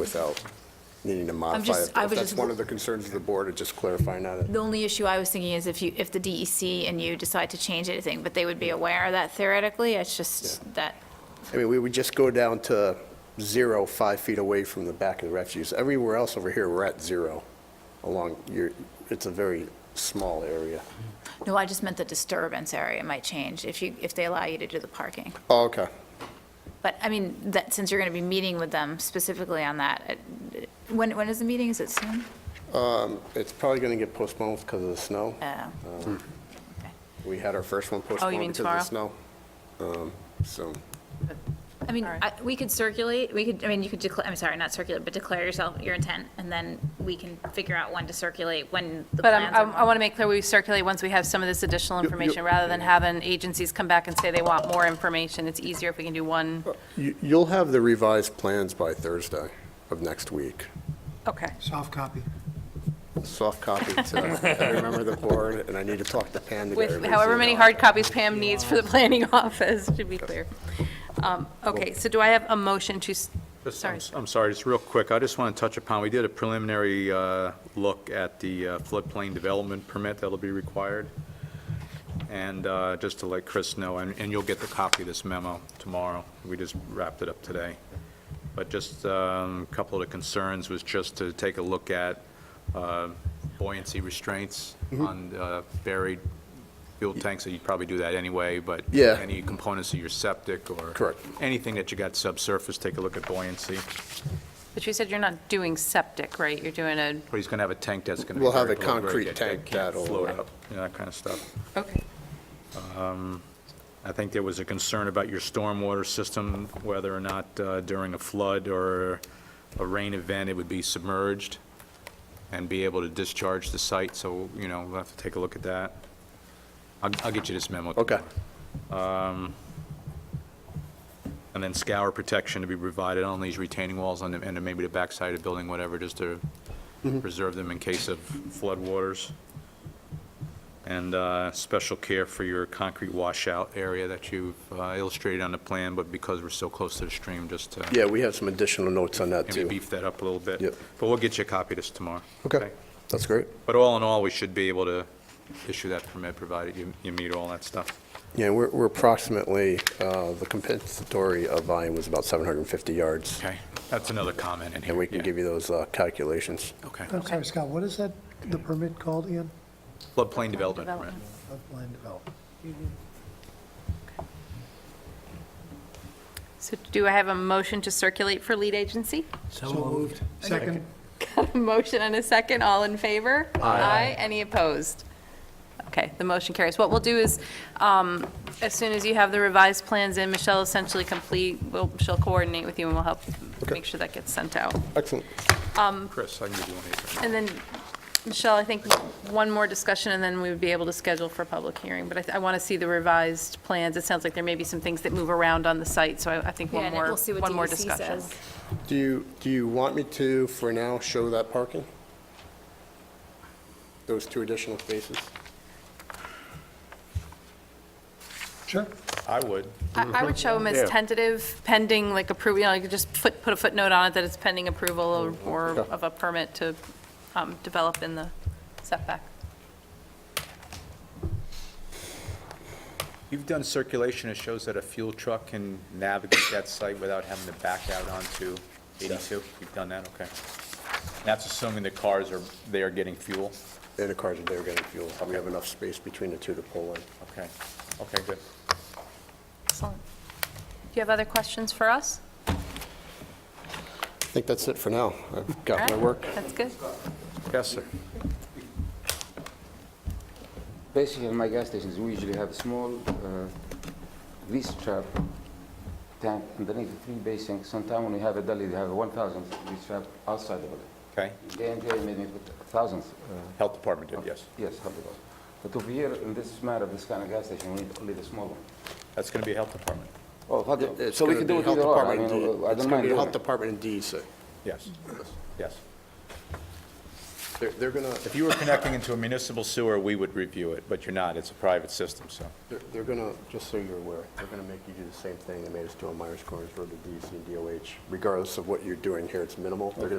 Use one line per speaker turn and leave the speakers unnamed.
without needing to
I'm
modify
just-
it.
I
If
was
that's
just-
one of the concerns of the board, it's just clarifying that.
The only issue I was thinking is if you, if the DEC and you decide to change anything, but they would be aware of that theoretically, it's just that,
I mean, we would just go down to zero, five feet away from the back of the refuse. Everywhere else over here, we're at zero along your, it's a very small area.
no, I just meant the disturbance area might change if you, if they allow you to do the parking.
Oh, okay.
But, I mean, that, since you're going to be meeting with them specifically on that, it- when, when is the meeting? Is it soon?
It's probably going to get postponed because of the snow.
Uh,
We had our first one
Oh,
postponed
mean
because of the snow. Um, So,
I mean,
All right.
I- we could circulate, we could, I mean, you could declare, I'm sorry, not circulate, but declare yourself, your intent, and then we can figure out when to circulate, when the
But
plans
I'm- I'm- I
are. more-
want to make clear, we circulate once we have some of this additional
you-
information, rather than having agencies come back and say they want more information. It's easier if we can do one.
you- you'll have the revised plans by Thursday of next week.
Okay.
Soft copy.
Soft copy to, I remember the board, and I need to talk to Pam to get
With
everybody's
however many
email.
hard copies Pam needs for the planning office, to be clear. Um, Okay, so do I have a motion to, s-
Just-
sorry.
I'm s- I'm sorry, just real quick, I just want to touch upon, we did a preliminary uh, look at the uh, floodplain development permit that'll be required. And uh, just to let Chris know, and and you'll get the copy of this memo tomorrow, we just wrapped it up today. But just um, a couple of the concerns was just to take a look at uh, buoyancy restraints on uh, buried fuel tanks, so you'd probably do that anyway, but
Yeah.
any components of your septic or
Correct.
anything that you got subsurface, take a look at buoyancy.
but you said you're not doing septic, right? You're doing a,
But he's going to have a tank that's going to be.
We'll have a
vertical, where
concrete
that- that
tank
can't
that'll- uh,
Float up, you know, that kind of stuff.
okay.
I think there was a concern about your stormwater system, whether or not uh, during a flood or a rain event, it would be submerged and be able to discharge the site, so, you know, we'll have to take a look at that. I'll, I'll get you this memo.
Okay.
tomorrow. And then scour protection to be provided on these retaining walls on the- and then maybe the backside of the building, whatever, just to
Mm-hmm.
preserve them in case of floodwaters. And uh, special care for your concrete washout area that you've uh, illustrated on the plan, but because we're so close to the stream, just to
Yeah, we have some additional notes on that,
maybe
too.
beef that up a little bit.
Yep.
But we'll get you a copy of this tomorrow.
Okay, that's great.
But all in all, we should be able to issue that permit, provided you you meet all that stuff.
Yeah, we're we're approximately, uh, the compensatory uh, volume was about 750 yards,
Okay, that's another comment in here.
and we can give Oh. you those uh, calculations.
Okay.
I'm sorry, Scott, what is that, the permit called again?
Floodplain development permit.
Development.
Floodplain development.
So do I have a motion to circulate for lead agency?
So moved. Second.
Motion and a second, all in favor? Aye. Any opposed? Okay, the motion carries. What we'll do is, um, as soon as you have the revised plans in, Michelle essentially complete, we'll- she'll coordinate with you and we'll help
Okay.
make sure that gets sent out.
Excellent.
Chris, I can give you one here.
And then, Michelle, I think one more discussion and then we would be able to schedule for public hearing. But I th- I want to see the revised plans. It sounds like there may be some things that move around on the site, so I I think
Yeah,
one
and then
more,
we'll see what
one more
DEC
discussion.
says.
Do you, do you want me to, for now, show that parking? Those two additional spaces?
Sure.
I would.
I I would show them as tentative, pending, like approval, you know, you could just foot- put a footnote on it that it's pending approval or- or
Okay.
of a permit to um, develop in the setback.
You've done circulation that shows that a fuel truck can navigate that site without having to back out onto 82? You've done that, okay. That's assuming the cars are, they are getting fuel?
And the cars are there getting fuel. We have enough space between the two to pull in.
Okay, okay, good.
Excellent. Do you have other questions for us?
I think that's it for now. I've got my
All right,
work.
That's good.
Yes, sir.
Basically, my gas stations, we usually have a small uh, grease trap tank underneath the three basin. Sometimes when we have a deli, they have a 1,000 grease trap outside the deli.
Okay.
Day and day, maybe with thousands. uh,
Health Department did, yes.
Yes, hundred dollars. But over here, in this matter, of this kind of gas station, we need only the small one.
That's going to be Health Department,
Oh, how do-
It's
so we
gonna
can
be
do it
Health
either or. I
Department
mean,
and D-
I
It's
don't
gonna
mind
be
doing
Health
it.
Department and DEC.
yes, yes.
They're, they're gonna,
If you were connecting into a municipal sewer, we would review it, but you're not. It's a private system, so.
they're- they're gonna, just so you're aware, they're gonna make you do the same thing they made us do on Myers Corners Road to DC and DOH. Regardless of what you're doing here, it's minimal. They're gonna